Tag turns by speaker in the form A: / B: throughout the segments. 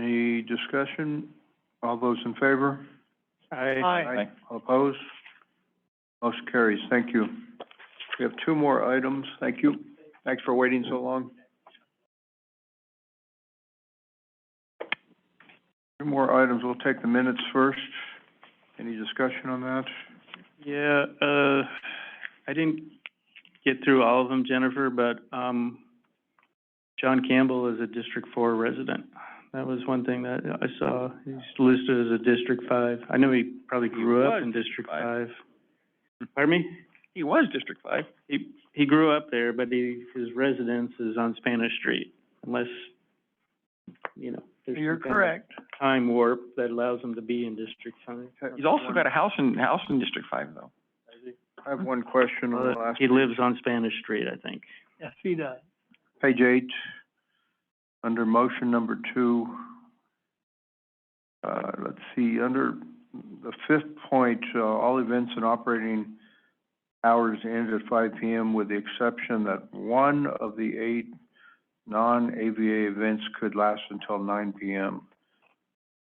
A: Any discussion? All those in favor?
B: Aye.
A: All Opposed? Motion carries. Thank you. We have two more items. Thank you. Thanks for waiting so long. Two more items. We'll take the minutes first. Any discussion on that?
B: Yeah, uh, I didn't get through all of them, Jennifer, but, um, John Campbell is a District Four resident. That was one thing that I saw. He's listed as a District Five. I know he probably grew up in District Five. Pardon me?
C: He was District Five.
B: He, he grew up there, but he, his residence is on Spanish Street, unless, you know, there's some
A: You're
B: kind of
A: correct.
B: time warp that allows him to be in District Five.
C: He's also got a house in, house in District Five, though.
A: I have one question on the last,
B: He lives on Spanish Street, I think.
D: Yes, he does.
A: page eight, under motion number two. Uh, let's see, under the fifth point, uh, all events and operating hours end at five P M. with the exception that one of the eight non-AVA events could last until nine P M.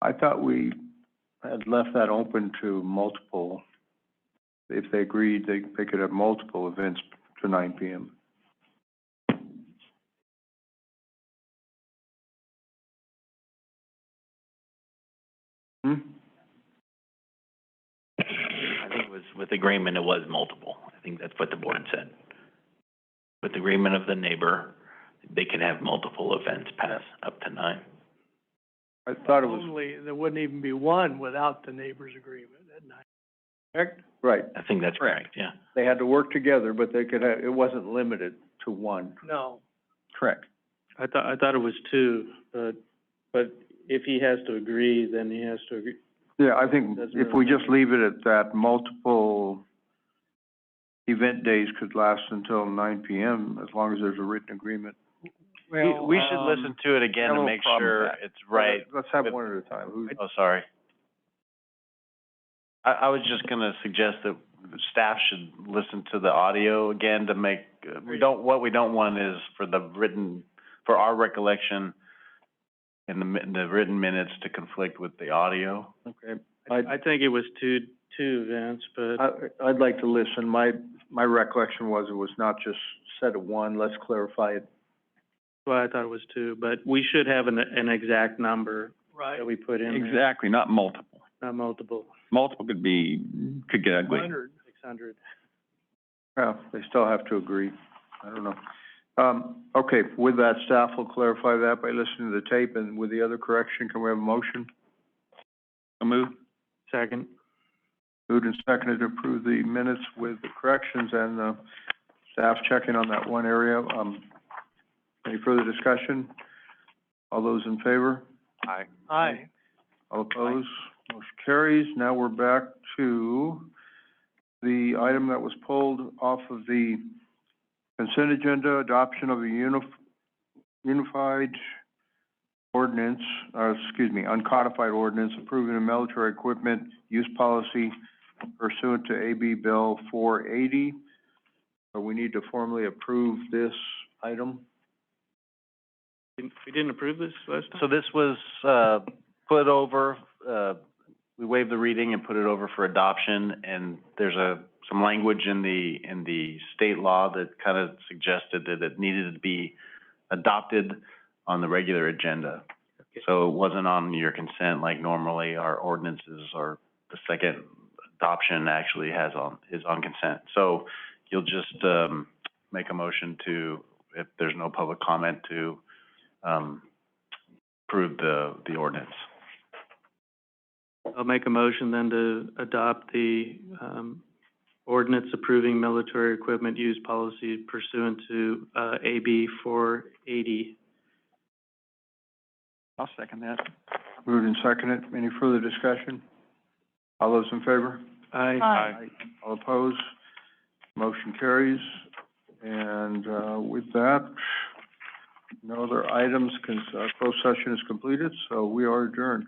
A: I thought we had left that open to multiple. If they agreed, they, they could have multiple events to nine P M. Hmm?
E: I think it was, with agreement, it was multiple. I think that's what the board said. With agreement of the neighbor, they could have multiple events pass up to nine.
A: I thought it was,
D: Only, there wouldn't even be one without the neighbor's agreement at night. Correct?
A: right,
E: I think that's
C: Correct.
E: correct, yeah.
A: they had to work together, but they could have, it wasn't limited to one.
D: No.
C: Correct.
B: I thought, I thought it was two, but, but if he has to agree, then he has to agree.
A: Yeah, I think
B: Doesn't
A: if we
B: really
A: just leave it at that, multiple event days could last until nine PM, as long as there's a written agreement.
F: We, we should
A: um,
F: listen to it
C: I
F: again
C: have a
F: to
C: little
F: make
C: problem with
F: sure
C: that.
F: it's right.
A: Let's have one at a time. Who-
F: Oh, sorry. I, I was just gonna suggest that staff should listen to the audio again to make, uh, we don't, what we don't want is for the written, for our recollection in the, mi- the written minutes to conflict with the audio.
A: Okay. I'd-
B: I, I think it was two, two events, but,
A: I, I'd like to listen. My, my recollection was it was not just set at one, let's clarify it.
B: well, I thought it was two, but we should have an, an exact number
D: Right.
B: that we put in there,
C: Exactly, not multiple.
B: not multiple,
C: Multiple could be, could get ugly.
D: Hundred.
B: six hundred.
A: Well, they still have to agree. I don't know. Um, okay, with that, staff will clarify that by listening to the tape, and with the other correction, can we have a motion?
C: So move.
B: Second,
A: Moved and seconded to approve the minutes with the corrections and, uh, staff checking on that one area. Um, any further discussion? All those in favor?
F: Aye.
D: Aye.
A: All opposed? Motion carries. Now we're back to the item that was pulled off of the consent agenda, adoption of a unif- unified ordinance, or excuse me, uncodified ordinance approving a military equipment use policy pursuant to AB Bill four eighty. So we need to formally approve this item.
B: Didn't- we didn't approve this last time?
F: So this was, uh, put over, uh, we waived the reading and put it over for adoption, and there's a, some language in the, in the state law that kind of suggested that it needed to be adopted on the regular agenda. So it wasn't on your consent like normally our ordinances or the second adoption actually has on, is on consent. So you'll just, um, make a motion to, if there's no public comment, to, um, approve the, the ordinance.
B: I'll make a motion then to adopt the, um, ordinance approving military equipment use policy pursuant to, uh, AB four eighty.
C: I'll second that.
A: Moved and seconded. Any further discussion? All those in favor?
B: Aye.
A: All opposed? Motion carries. And, uh, with that, no other items, cons- uh, closed session is completed, so we are adjourned.